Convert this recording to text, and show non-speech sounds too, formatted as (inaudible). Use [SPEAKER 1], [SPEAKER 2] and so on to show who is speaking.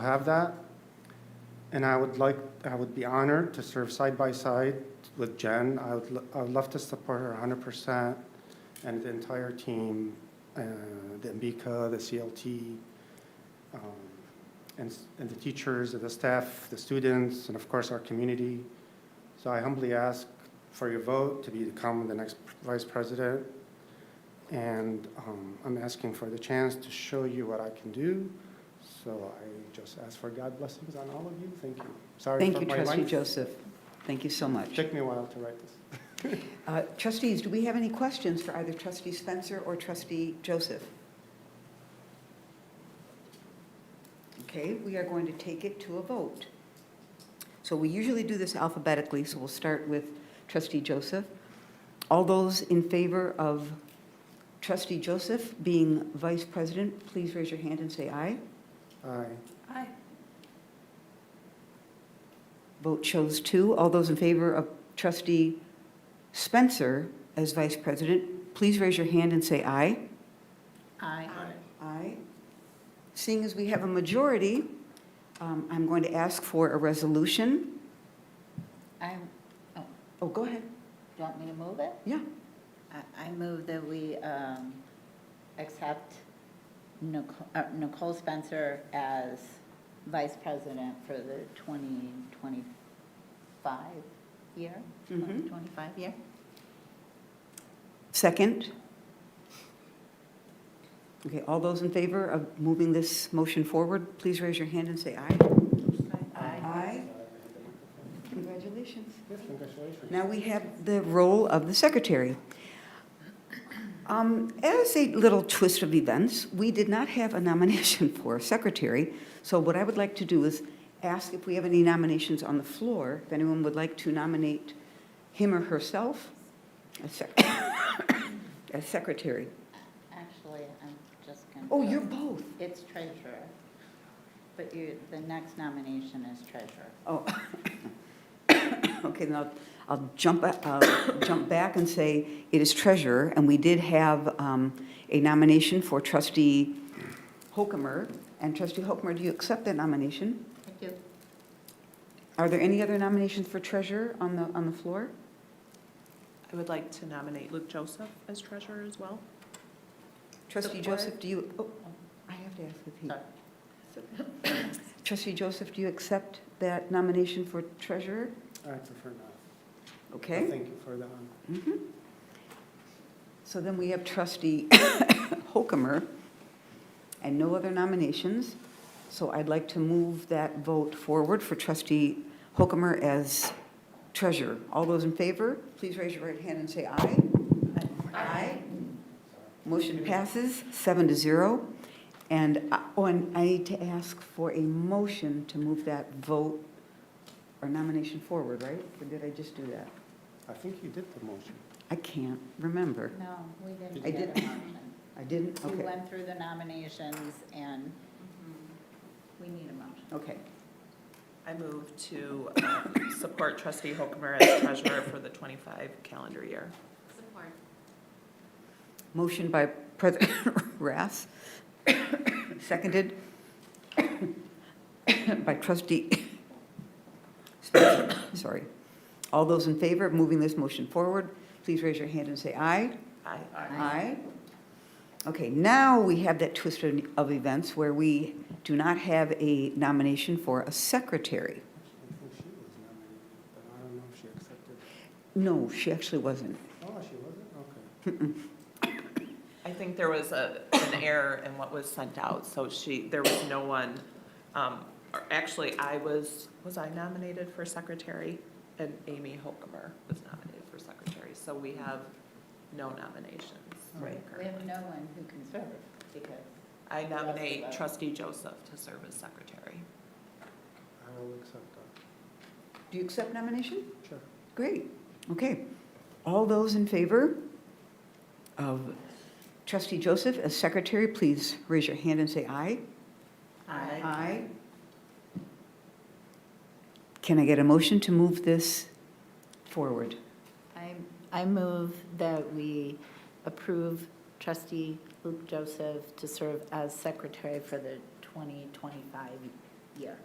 [SPEAKER 1] have that. And I would like, I would be honored to serve side by side with Jen. I would, lo- I would love to support her hundred percent and the entire team, uh, the MBICA, the CLT, um, and, s- and the teachers, and the staff, the students, and of course, our community. So I humbly ask for your vote to become the next vice president. And, um, I'm asking for the chance to show you what I can do. So I just ask for God blessings on all of you. Thank you. Sorry
[SPEAKER 2] Thank
[SPEAKER 1] for
[SPEAKER 2] you,
[SPEAKER 1] my
[SPEAKER 2] trustee
[SPEAKER 1] length.
[SPEAKER 2] Joseph. Thank you so much.
[SPEAKER 1] Took me a while to write this.
[SPEAKER 2] Uh, Trustees, do we have any questions for either trustee Spencer or trustee Joseph? Okay, we are going to take it to a vote. So we usually do this alphabetically, so we'll start with trustee Joseph. All those in favor of trustee Joseph being vice president, please raise your hand and say aye.
[SPEAKER 1] Aye.
[SPEAKER 3] Aye.
[SPEAKER 2] Vote shows two. All those in favor of trustee Spencer as vice president, please raise your hand and say aye.
[SPEAKER 3] Aye.
[SPEAKER 2] Aye. Seeing as we have a majority, um, I'm going to ask for a resolution.
[SPEAKER 3] I,
[SPEAKER 2] Oh, go ahead.
[SPEAKER 3] you want me to move it?
[SPEAKER 2] Yeah.
[SPEAKER 3] I, I move that we um, accept Nicole uh, Nicole Spencer as vice president for the 2025 year,
[SPEAKER 2] Mhm.
[SPEAKER 3] 2025 year.
[SPEAKER 2] Second. Okay, all those in favor of moving this motion forward, please raise your hand and say aye. Aye. Congratulations.
[SPEAKER 1] Yes, congratulations.
[SPEAKER 2] Now we have the role of the secretary. Um, As a little twist of events, we did not have a nomination (laughs) for secretary, so what I would like to do is ask if we have any nominations on the floor, if anyone would like to nominate him or herself as sec- (coughs) as secretary.
[SPEAKER 3] Actually, I'm just going to.
[SPEAKER 2] Oh, you're both.
[SPEAKER 3] It's treasurer, but you, the next nomination is treasurer.
[SPEAKER 2] Oh, (coughs) okay, then I'll, I'll jump, ba- I'll jump back and say it is treasurer, and we did have um, a nomination for trustee Hokumer, and trustee Hokumer, do you accept that nomination?
[SPEAKER 3] I do.
[SPEAKER 2] Are there any other nominations for treasurer on the, on the floor?
[SPEAKER 4] I would like to nominate Luke Joseph as treasurer as well.
[SPEAKER 2] Trustee
[SPEAKER 3] Support.
[SPEAKER 2] Joseph, do you, oh, I have to ask if he,
[SPEAKER 3] Sorry.
[SPEAKER 2] (coughs) trustee Joseph, do you accept that nomination for treasurer?
[SPEAKER 1] I prefer not.
[SPEAKER 2] Okay.
[SPEAKER 1] Thank you for the um, honor.
[SPEAKER 2] Mhm. So then we have trustee (coughs) Hokumer and no other nominations. So I'd like to move that vote forward for trustee Hokumer as treasurer. All those in favor, please raise your right hand and say aye. Aye. Motion passes seven to zero. And, I- oh, and I need to ask for a motion to move that vote or nomination forward, right? Or did I just do that?
[SPEAKER 1] I think you did the motion.
[SPEAKER 2] I can't remember.
[SPEAKER 3] No, we didn't.
[SPEAKER 2] I
[SPEAKER 3] get
[SPEAKER 2] didn't.
[SPEAKER 3] a motion.
[SPEAKER 2] I didn't,
[SPEAKER 3] We
[SPEAKER 2] okay,
[SPEAKER 3] went through the nominations and we need a motion.
[SPEAKER 2] okay.
[SPEAKER 4] I move to um, support trustee Hokumer as treasurer for the 25 calendar year.
[SPEAKER 2] Motion by President (coughs) Rath, seconded (coughs) by trustee (coughs) Spencer, sorry. All those in favor of moving this motion forward, please raise your hand and say aye.
[SPEAKER 4] Aye.
[SPEAKER 2] Aye. Okay, now we have that twist of- of events where we do not have a nomination for a secretary.
[SPEAKER 1] I think she was nominated, but I don't know if she accepted.
[SPEAKER 2] No, she actually wasn't.
[SPEAKER 1] Oh, she wasn't? Okay.
[SPEAKER 4] I think there was a, an error in what was sent out, so she, there was no one, um, or actually, I was, was I nominated for secretary? And Amy Hokumer was nominated for secretary, so we have no nominations.
[SPEAKER 2] Right.
[SPEAKER 3] We have no one who can serve because
[SPEAKER 4] I nominate trustee Joseph to serve as secretary.
[SPEAKER 1] I will accept that.
[SPEAKER 2] Do you accept nomination?
[SPEAKER 1] Sure.
[SPEAKER 2] Great, okay. All those in favor of trustee Joseph as secretary, please raise your hand and say aye.
[SPEAKER 3] Aye.
[SPEAKER 2] Aye. Can I get a motion to move this forward?
[SPEAKER 3] I, I move that we approve trustee Luke Joseph to serve as secretary for the 2025 yeah.